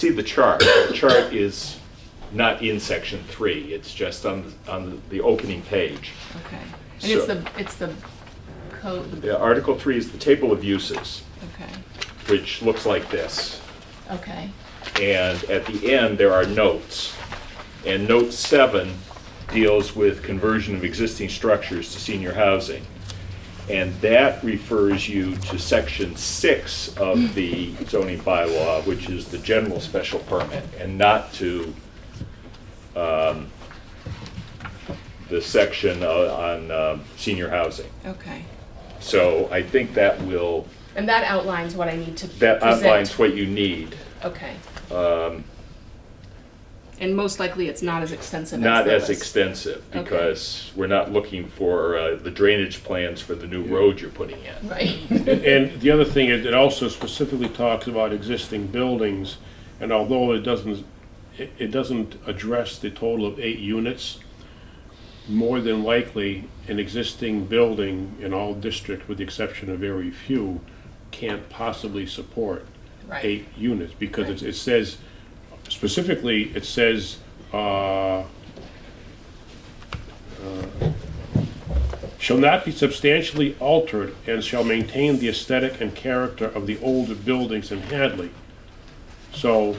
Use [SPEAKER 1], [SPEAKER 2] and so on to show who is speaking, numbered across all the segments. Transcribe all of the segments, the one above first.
[SPEAKER 1] see the chart. The chart is not in section three, it's just on, the- on the opening page.
[SPEAKER 2] Okay. And it's
[SPEAKER 1] So-
[SPEAKER 2] the, it's the code, the-
[SPEAKER 1] Yeah, Article three is the table of uses,
[SPEAKER 2] okay,
[SPEAKER 1] which looks like this.
[SPEAKER 2] okay,
[SPEAKER 1] And at the end, there are notes. And note seven deals with conversion of existing structures to senior housing. And that refers you to section six of the zoning bylaw, which is the general special permit, and not to um, the section uh, on um, senior housing.
[SPEAKER 2] okay.
[SPEAKER 1] So I think that will,
[SPEAKER 2] And that outlines what I need to present.
[SPEAKER 1] that outlines um, what you need.
[SPEAKER 2] Okay. And most likely, it's not as extensive as
[SPEAKER 1] Not
[SPEAKER 2] the
[SPEAKER 1] as
[SPEAKER 2] list.
[SPEAKER 1] extensive,
[SPEAKER 2] Okay.
[SPEAKER 1] because we're not looking for uh, the drainage plans for the new road you're putting in.
[SPEAKER 2] Right,
[SPEAKER 3] And the other thing is, it also specifically talks about existing buildings, and although it doesn't, it, it doesn't address the total of eight units, more than likely, an existing building in all districts, with the exception of very few, can't possibly support
[SPEAKER 2] Right.
[SPEAKER 3] eight units, because it, it says, specifically, it says, uh, shall not be substantially altered and shall maintain the aesthetic and character of the older buildings in Hadley. So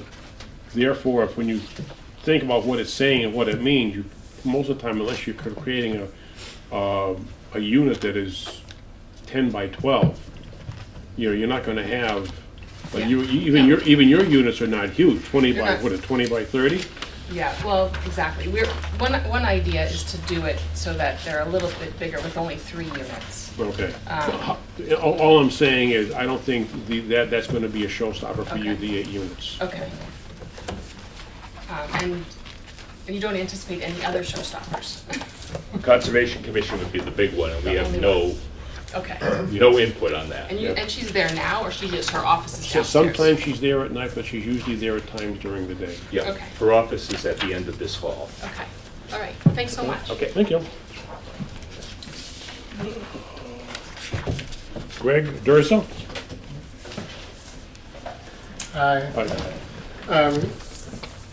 [SPEAKER 3] therefore, if when you think about what it's saying and what it means, you, most of the time, unless you're creating a, um, a unit that is ten by twelve, you know, you're not gonna have, like, you, even your, even your units are not huge, twenty by,
[SPEAKER 2] not-
[SPEAKER 3] what, a twenty by thirty?
[SPEAKER 2] yeah, well, exactly. We're, one, one idea is to do it so that they're a little bit bigger with only three units.
[SPEAKER 3] Okay.
[SPEAKER 2] Ah.
[SPEAKER 3] So, All, all I'm saying is, I don't think the, that, that's gonna be a showstopper for you,
[SPEAKER 2] Okay.
[SPEAKER 3] the eight units.
[SPEAKER 2] Okay. Um, And, and you don't anticipate any other showstoppers?
[SPEAKER 1] Conservation Commission would be the big one, and we have no,
[SPEAKER 2] Okay.
[SPEAKER 1] no input on
[SPEAKER 2] And
[SPEAKER 1] that.
[SPEAKER 2] you,
[SPEAKER 3] Yeah.
[SPEAKER 2] and she's there now, or she just, her office is
[SPEAKER 3] So
[SPEAKER 2] downstairs?
[SPEAKER 3] sometimes she's there at night, but she's usually there at times during the day.
[SPEAKER 1] Yeah,
[SPEAKER 2] Okay.
[SPEAKER 1] her office is at the end of this hall.
[SPEAKER 2] Okay, all right, thanks so much.
[SPEAKER 1] Okay,
[SPEAKER 3] Thank you. Greg Durso?
[SPEAKER 4] Hi.
[SPEAKER 3] Hi.
[SPEAKER 4] Um,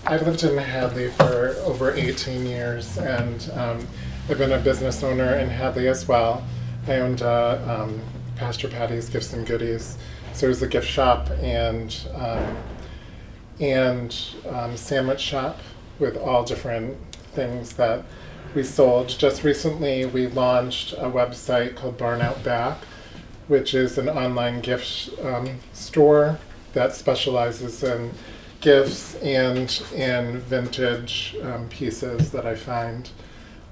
[SPEAKER 4] I've lived in Hadley for over 18 years and um, I've been a business owner in Hadley as well. I owned uh, um, Pastor Patty's Gifts and Goodies. So it was a gift shop and um, and um, sandwich shop with all different things that we sold. Just recently, we launched a website called Barn Out Back, which is an online gift um, store that specializes in gifts and in vintage um, pieces that I find.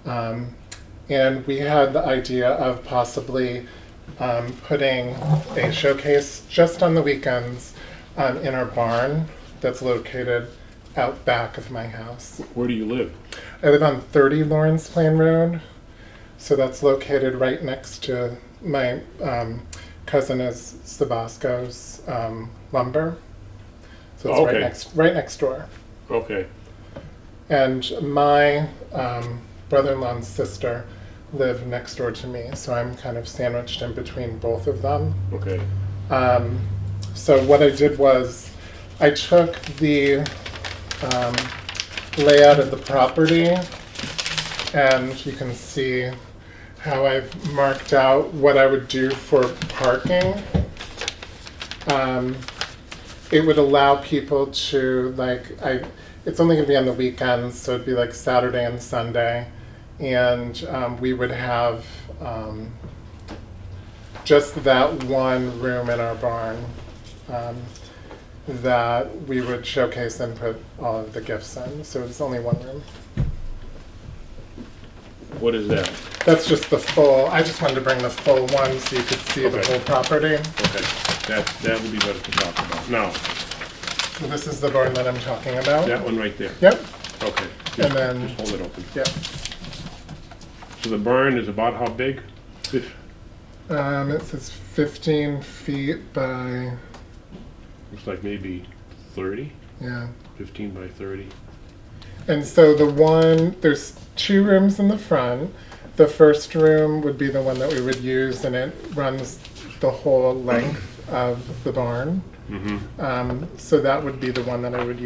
[SPEAKER 4] Um, and we had the idea of possibly um, putting a showcase just on the weekends um, in our barn that's located out back of my house.
[SPEAKER 3] Where do you live?
[SPEAKER 4] I live on 30 Lawrence Plain Road, so that's located right next to my um, cousin is Sabasco's um, lumber. So it's
[SPEAKER 3] Okay.
[SPEAKER 4] right next right next door.
[SPEAKER 3] Okay,
[SPEAKER 4] And my um, brother in law and sister live next door to me, so I'm kind of sandwiched in between both of them.
[SPEAKER 3] okay.
[SPEAKER 4] Um, so, what I did was I took the um, layout of the property, and you can see how I've marked out what I would do for parking. Um, it would allow people to like I it's only gonna be on the weekends, so it'd be like Saturday and Sunday. And um, we would have um, just that one room in our barn um, that we would showcase and put all of the gifts in. So it's only one room.
[SPEAKER 3] What is that?
[SPEAKER 4] That's just the full. I just wanted to bring the full one so you could see the
[SPEAKER 3] Okay.
[SPEAKER 4] whole property.
[SPEAKER 3] Okay, that, that would be better to talk about. Now,
[SPEAKER 4] So this is the barn that I'm talking about.
[SPEAKER 3] that one right there.
[SPEAKER 4] Yep.
[SPEAKER 3] Okay.
[SPEAKER 4] And then-
[SPEAKER 3] Just hold it open.
[SPEAKER 4] Yep.
[SPEAKER 3] So the barn is about how big? Fif-
[SPEAKER 4] Um, it says 15 feet by,
[SPEAKER 3] Looks like maybe 30,
[SPEAKER 4] yeah.
[SPEAKER 3] 15 by 30.
[SPEAKER 4] And so the one, there's two rooms in the front. The first room would be the one that we would use, and it runs the whole length of the barn. Um, so that would be the one that I would use.